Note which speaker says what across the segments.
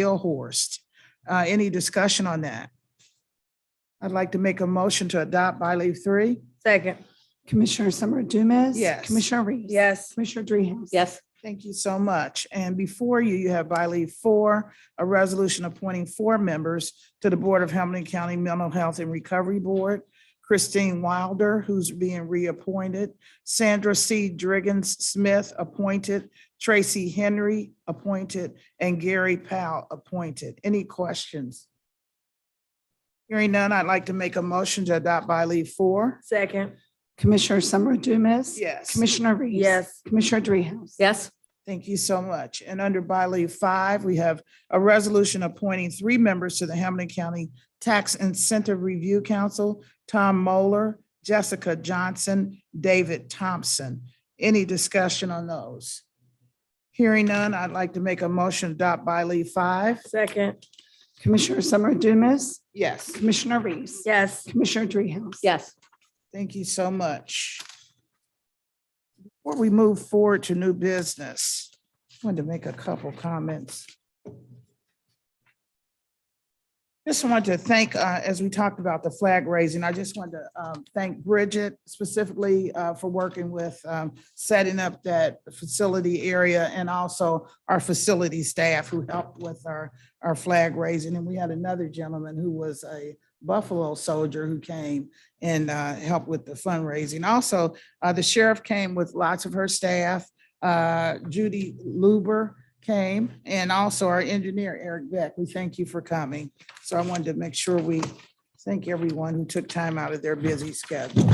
Speaker 1: Seelhorst. Uh, Any discussion on that? I'd like to make a motion to adopt by leave three.
Speaker 2: Second.
Speaker 3: Commissioner Summer Dumas.
Speaker 1: Yes.
Speaker 3: Commissioner Reese.
Speaker 2: Yes.
Speaker 3: Commissioner Dreehouse.
Speaker 2: Yes.
Speaker 1: Thank you so much. And before you, you have by leave four, a resolution appointing four members to the Board of Hamilton County Mental Health and Recovery Board. Christine Wilder, who's being reappointed, Sandra C. Driggins Smith, appointed, Tracy Henry, appointed, and Gary Powell, appointed. Any questions? Hearing none, I'd like to make a motion to adopt by leave four.
Speaker 2: Second.
Speaker 3: Commissioner Summer Dumas.
Speaker 1: Yes.
Speaker 3: Commissioner Reese.
Speaker 2: Yes.
Speaker 3: Commissioner Dreehouse.
Speaker 2: Yes.
Speaker 1: Thank you so much. And under by leave five, we have a resolution appointing three members to the Hamilton County Tax Incentive Review Council, Tom Moeller, Jessica Johnson, David Thompson. Any discussion on those? Hearing none, I'd like to make a motion to adopt by leave five.
Speaker 2: Second.
Speaker 3: Commissioner Summer Dumas.
Speaker 1: Yes.
Speaker 3: Commissioner Reese.
Speaker 2: Yes.
Speaker 3: Commissioner Dreehouse.
Speaker 2: Yes.
Speaker 1: Thank you so much. Before we move forward to new business, I wanted to make a couple comments. Just wanted to thank, uh, as we talked about the flag raising, I just wanted to um, thank Bridget specifically uh, for working with um, setting up that facility area and also our facility staff who helped with our, our flag raising. And we had another gentleman who was a Buffalo soldier who came and uh, help with the fundraising. Also, uh, the sheriff came with lots of her staff. Uh, Judy Luber came and also our engineer Eric Beck. We thank you for coming. So I wanted to make sure we thank everyone who took time out of their busy schedule.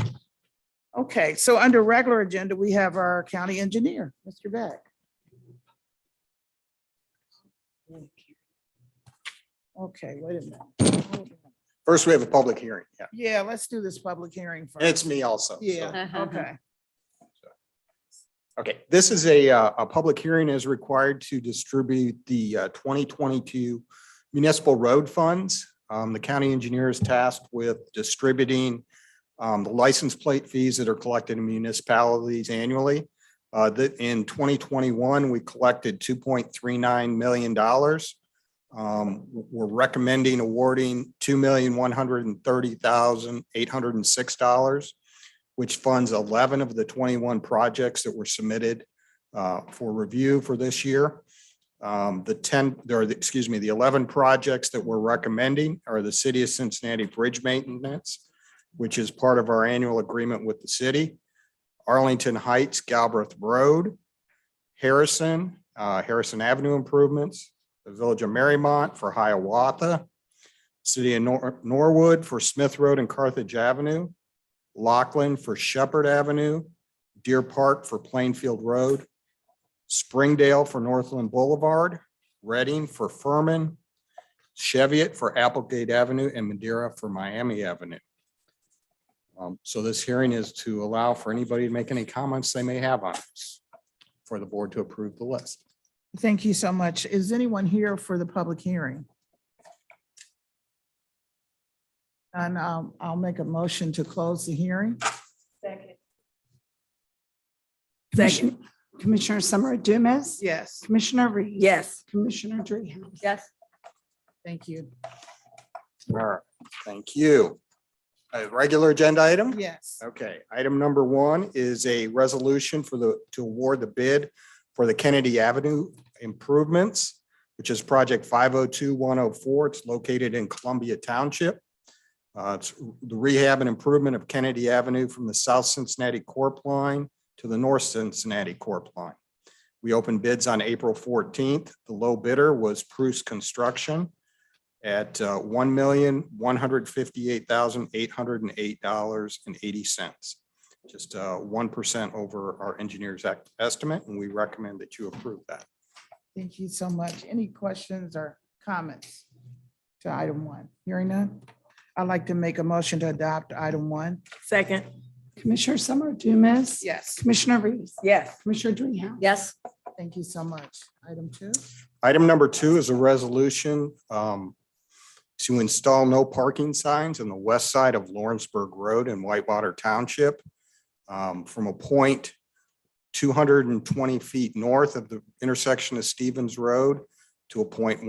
Speaker 1: Okay, so under regular agenda, we have our county engineer, Mr. Beck. Okay, wait a minute.
Speaker 4: First, we have a public hearing. Yeah.
Speaker 1: Yeah, let's do this public hearing first.
Speaker 4: It's me also. so-
Speaker 1: Yeah, okay.
Speaker 4: Okay, this is a, uh, a public hearing is required to distribute the uh, 2022 municipal road funds. Um, The county engineer is tasked with distributing um, the license plate fees that are collected in municipalities annually. Uh, That in 2021, we collected $2.39 million. Um, We're recommending awarding $2,130,806 which funds 11 of the 21 projects that were submitted uh, for review for this year. Um, The 10, or the- excuse me, the 11 projects that we're recommending are the City of Cincinnati Bridge Maintenance, which is part of our annual agreement with the city, Arlington Heights Galbraith Road, Harrison, uh, Harrison Avenue Improvements, the Village of Marymont for Hiawatha, City of Nor- Norwood for Smith Road and Carthage Avenue, Lachlan for Shepherd Avenue, Deer Park for Plainfield Road, Springdale for Northland Boulevard, Reading for Furman, Cheviot for Applegate Avenue, and Madeira for Miami Avenue. Um, So this hearing is to allow for anybody to make any comments they may have on this for the board to approve the list.
Speaker 1: Thank you so much. Is anyone here for the public hearing? And um, I'll make a motion to close the hearing.
Speaker 2: Second.
Speaker 3: Commissioner- Commissioner Summer Dumas.
Speaker 1: Yes.
Speaker 3: Commissioner Reese.
Speaker 2: Yes.
Speaker 3: Commissioner Dreehouse.
Speaker 2: Yes.
Speaker 1: Thank you.
Speaker 4: All right, thank you. A regular agenda item?
Speaker 1: Yes.
Speaker 4: Okay, item number one is a resolution for the, to award the bid for the Kennedy Avenue improvements, which is project five oh two one oh four. It's located in Columbia Township. Uh, It's the rehab and improvement of Kennedy Avenue from the South Cincinnati Corp line to the North Cincinnati Corp line. We opened bids on April fourteenth. The low bidder was Bruce Construction at uh, one million, one hundred fifty-eight thousand, eight hundred and eight dollars and eighty cents. Just uh, one percent over our engineer's ec- estimate, and we recommend that you approve that.
Speaker 1: Thank you so much. Any questions or comments to item one? Hearing none? I'd like to make a motion to adopt item one.
Speaker 2: Second.
Speaker 3: Commissioner Summer Dumas.
Speaker 1: Yes.
Speaker 3: Commissioner Reese.
Speaker 2: Yes.
Speaker 3: Commissioner Dreehouse.
Speaker 2: Yes.
Speaker 1: Thank you so much. Item two?
Speaker 4: Item number two is a resolution um, to install no parking signs on the west side of Lawrenceburg Road in Whitewater Township um, from a point two hundred and twenty feet north of the intersection of Stevens Road to a point